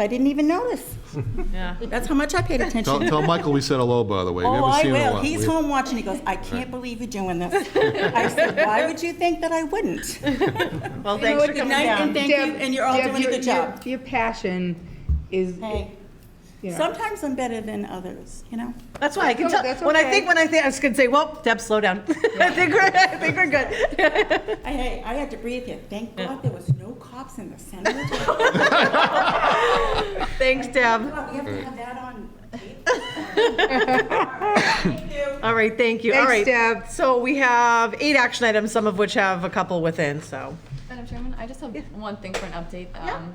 I didn't even notice. Yeah. That's how much I paid attention. Tell, tell Michael we said hello, by the way. We Oh, haven't I seen him in a will. while. He's We- home watching. He goes, I can't believe you're doing this. I said, why would you think that I wouldn't? Well, You know thanks what, for good coming night, down. and thank you, Deb- and you're all Deb, doing a your- good job. Your your passion is, Hey, you know. sometimes I'm better than others, you know? That's why I can No, tell, that's when I okay. think, when I think, I was gonna say, well, Deb, slow down. I think we're, I think we're good. I, hey, I had to breathe here. Thank God there was no cops in the center. of town. Thanks, Deb. God, We have to have that on tape. All right, thank you. All right. Thanks, Deb. So we have eight action items, some of which have a couple within, so. Madam Chairman, I just have one thing for an update. Um,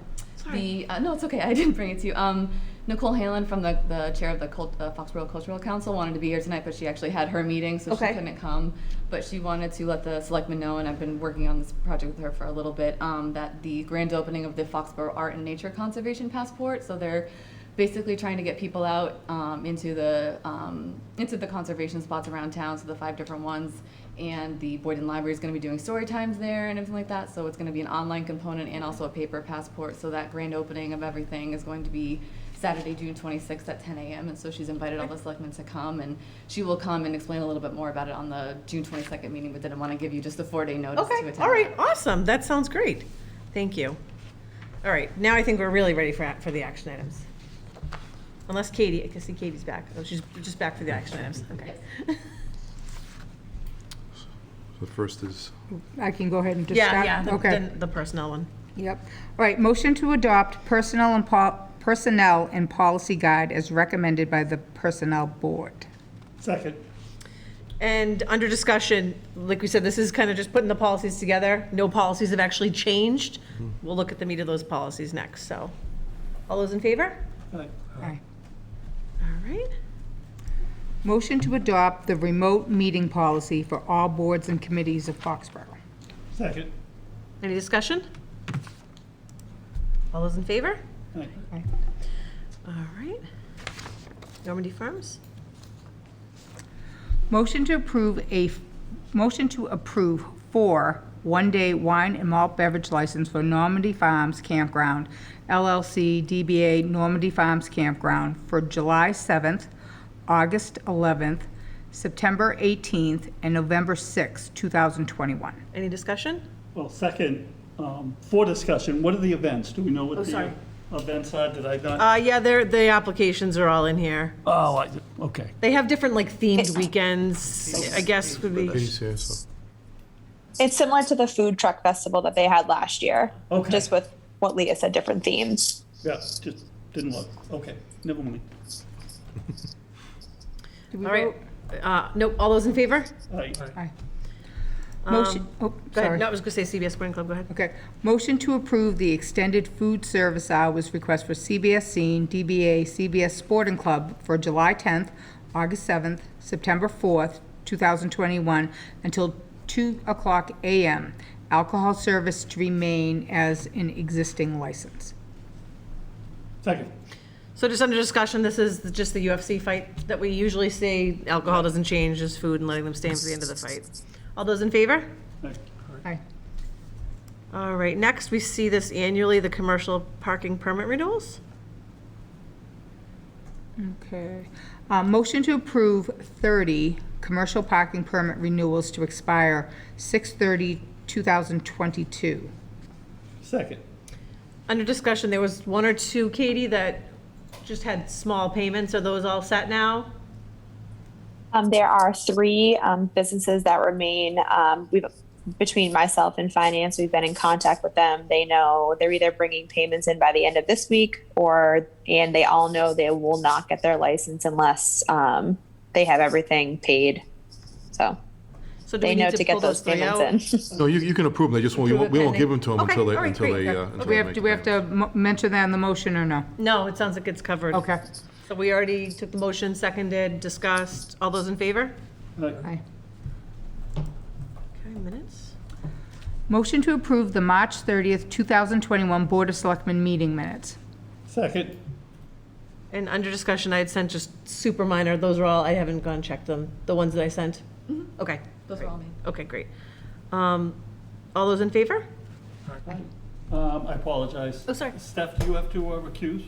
The, uh, no, it's okay, I didn't bring it to you. Um, Nicole Halen from the, the chair of the Cult- uh, Foxborough Cultural Council wanted to be here tonight, but she actually had her meeting, so she Okay. couldn't come. But she wanted to let the selectmen know, and I've been working on this project with her for a little bit, um, that the grand opening of the Foxborough Art and Nature Conservation Passport, so they're basically trying to get people out um, into the um, into the conservation spots around town, so the five different ones. And the Boyden Library is going to be doing story times there and everything like that. So it's going to be an online component and also a paper passport. So that grand opening of everything is going to be Saturday, June 26th at 10 a.m. And so she's invited all the selectmen to come, and she will come and explain a little bit more about it on the June 22nd meeting. But didn't want to give you just a four-day notice to Okay, attend. all right, that. awesome. That sounds great. Thank you. All right, now I think we're really ready for, for the action items. Unless Katie, I can see Katie's back. Oh, she's just back for the action items, okay. The first is, I can go ahead and just Yeah, stop? yeah, the- Okay. the the personnel one. Yep. All right, motion to adopt personnel and pol, personnel and policy guide as recommended by the Personnel Board. Second. And under discussion, like we said, this is kind of just putting the policies together. No policies have actually changed. We'll look at the meat of those policies next, so. All those in favor? Aye. All right. Motion to adopt the remote meeting policy for all boards and committees of Foxborough. Second. Any discussion? All those in favor? Aye. Aye. All right. Normandy Farms? Motion to approve a, motion to approve four one-day wine and malt beverage license for Normandy Farms Campground LLC DBA Normandy Farms Campground for July 7th, August 11th, September 18th, and November 6th, 2021. Any discussion? Well, second, um, for discussion, what are the events? Do we know what the events are? Did I not? Oh, Uh, yeah, they're, the applications are all in here. Oh, I- okay. They have different like themed weekends, I guess would be. Katie's here, so. It's similar to the food truck festival that they had last year. Okay. Just with what Leah said, different themes. Yeah, just didn't look. Okay, never mind. Did we All right. vote? Uh, nope, all those in favor? Aye. Motion, oh, um, Go ahead. sorry. No, I was gonna say CBS Sporting Club, go ahead. Okay, motion to approve the extended food service hours request for CBS Scene, DBA CBS Sporting Club for July 10th, August 7th, September 4th, 2021, until 2 o'clock a.m. Alcohol service to remain as an existing license. Second. So just under discussion, this is just the UFC fight that we usually see. Alcohol doesn't change, just food and letting them stay for the end of the fight. All those in favor? Aye. Aye. All right, next, we see this annually, the commercial parking permit renewals. Okay. Uh, Motion to approve 30 commercial parking permit renewals to expire 6/30/2022. Second. Under discussion, there was one or two, Katie, that just had small payments. Are those all set now? Um, there are three um, businesses that remain. Um, we've between myself and finance, we've been in contact with them. They know they're either bringing payments in by the end of this week, or and they all know they will not get their license unless um, they have everything paid. So So do they we know need to to pull get those those three payments out? in. No, you, you can approve them, they just, won't- we won't, we won't give them to them Okay, until they, all right, until great. they, Yeah. uh, until Do we they have, make. do we have to mo- mention that in the motion or no? No, it sounds like it's covered. Okay. So we already took the motion, seconded, discussed. All those in favor? Aye. Aye. Okay, minutes. Motion to approve the March 30th, 2021 Board of Selectmen meeting minutes. Second. And under discussion, I had sent just super minor, those are all, I haven't gone and checked them, the ones that I sent? Okay, Mm-hmm. Those are all me. okay, great. Um, All those in favor? Um, I apologize. Oh, sorry. Steph, do you have to uh, recuse?